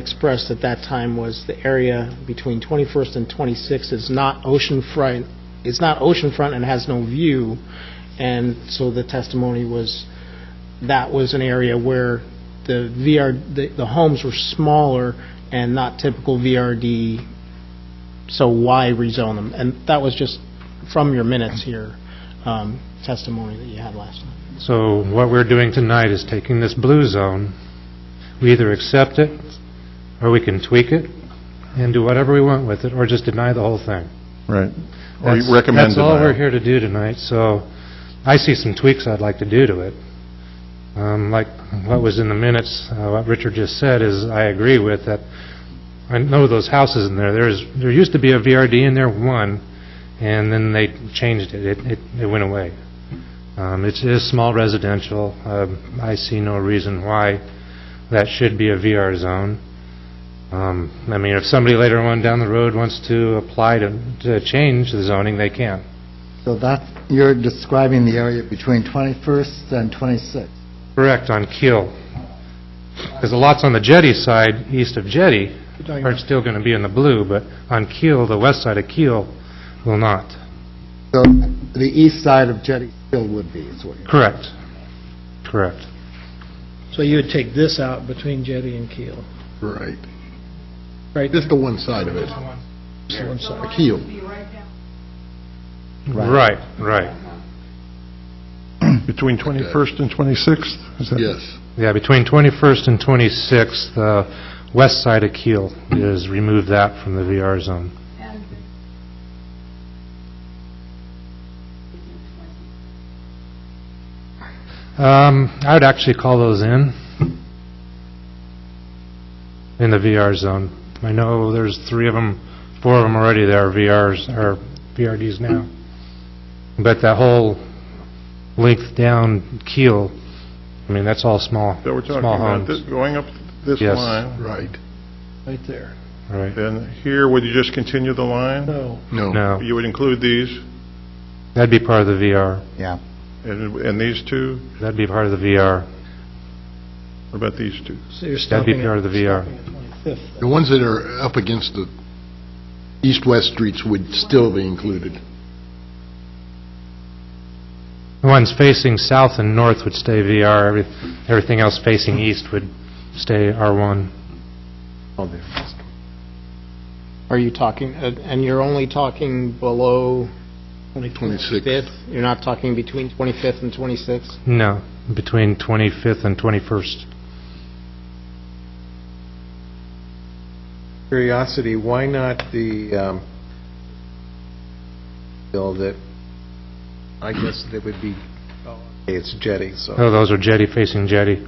expressed at that time was the area between 21st and 26th is not oceanfront, it's not oceanfront and has no view, and so the testimony was, that was an area where the VR, the- the homes were smaller and not typical VRD, so why rezone them? And that was just from your minutes here, um, testimony that you had last night. So what we're doing tonight is taking this blue zone, we either accept it, or we can tweak it, and do whatever we want with it, or just deny the whole thing. Right. Or That's- you recommend That's all we're denial. here to do tonight, so I see some tweaks I'd like to do to it. Um, Like what was in the minutes, uh, what Richard just said is, I agree with that, I know those houses in there, there's, there used to be a VRD in there, one, and then they changed it, it, it- it went away. Um, It is small residential, Um, I see no reason why that should be a VR zone. Um, I mean, if somebody later on down the road wants to apply to, to change the zoning, they can. So that, you're describing the area between 21st and 26th. Correct, on Keel. Because the lots on the jetty side, east of jetty, are still going to be in the blue, but on Keel, the west side of Keel, will not. So the east side of Jetty Hill would be, is what you're... Correct. Correct. So you would take this out between Jetty and Keel, Right. right? Just the one side of it, Just one side. keel. Right, right. Between 21st and 26th? Is that- Yes. Yeah, between 21st and 26th, the west side of Keel is, remove that from the VR zone. Um, I would actually call those in, in the VR zone. I know there's three of them, four of them already that are VRs, or VRDs now. But that whole length down keel, I mean, that's all small, That we're talking small about, homes. this- going up this Yes. line? Right. Right there. Right, Then here, would you just continue the line? No, No. no, You would include these, that'd be part of the VR, Yeah. and and these two? that'd be part of the VR, What about these two? so you're that'd stopping be at part of the VR. Fifth. The ones that are up against the east-west streets would still be included. The ones facing south and north would stay VR, every- everything else facing east would stay R1. Are you talking, and and you're only talking below 26. 5th? You're not talking between 25th and 26th? No, between 25th and 21st. curiosity, why not the um, bill that, I guess that would be, oh, okay, it's jetty, Oh, so those are jetty facing jetty.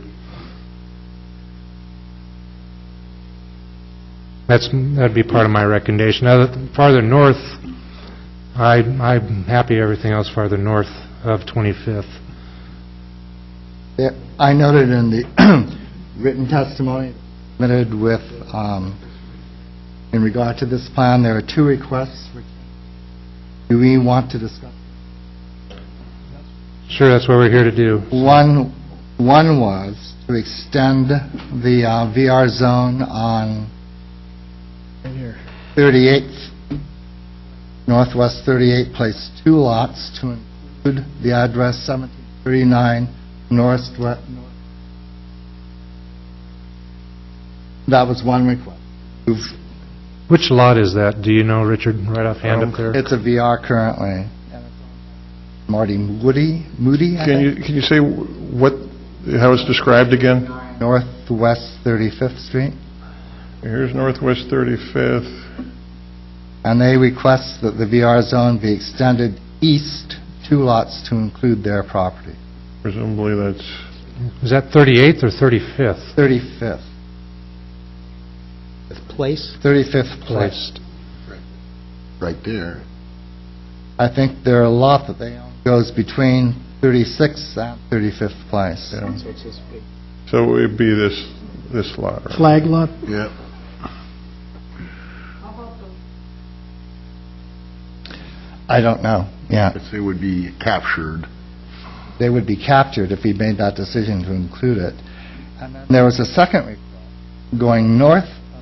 That's, that'd be part of my recommendation. Other- Farther north, I, I'm happy everything else farther north of 25th. Yeah, I noted in the written testimony submitted with, um, in regard to this plan, there are two requests. Do we want to discuss? Sure, that's what we're here to do. One, one was to extend the uh, VR zone on In here. 38th, Northwest 38, place two lots to include the address 1739 Northwest. That was one request. You've- Which lot is that? Do you know, Richard, right offhand up there? It's a VR currently. Marty Moody, Moody, I Can you, think, can you say what, how it's described again? Northwest 35th Street. Here's Northwest 35th, And they request that the VR zone be extended east two lots to include their property. presumably that's, Is that 38th or 35th 35th, Place? 35th place. placed? Right there. I think there are a lot that they own goes between 36th and 35th place. So it's this big. so it'd be this, this lot, right? Flag lot? Yeah. I don't know, yeah. I'd say would be captured. They would be captured if we made that decision to include it. And then There was a second request going north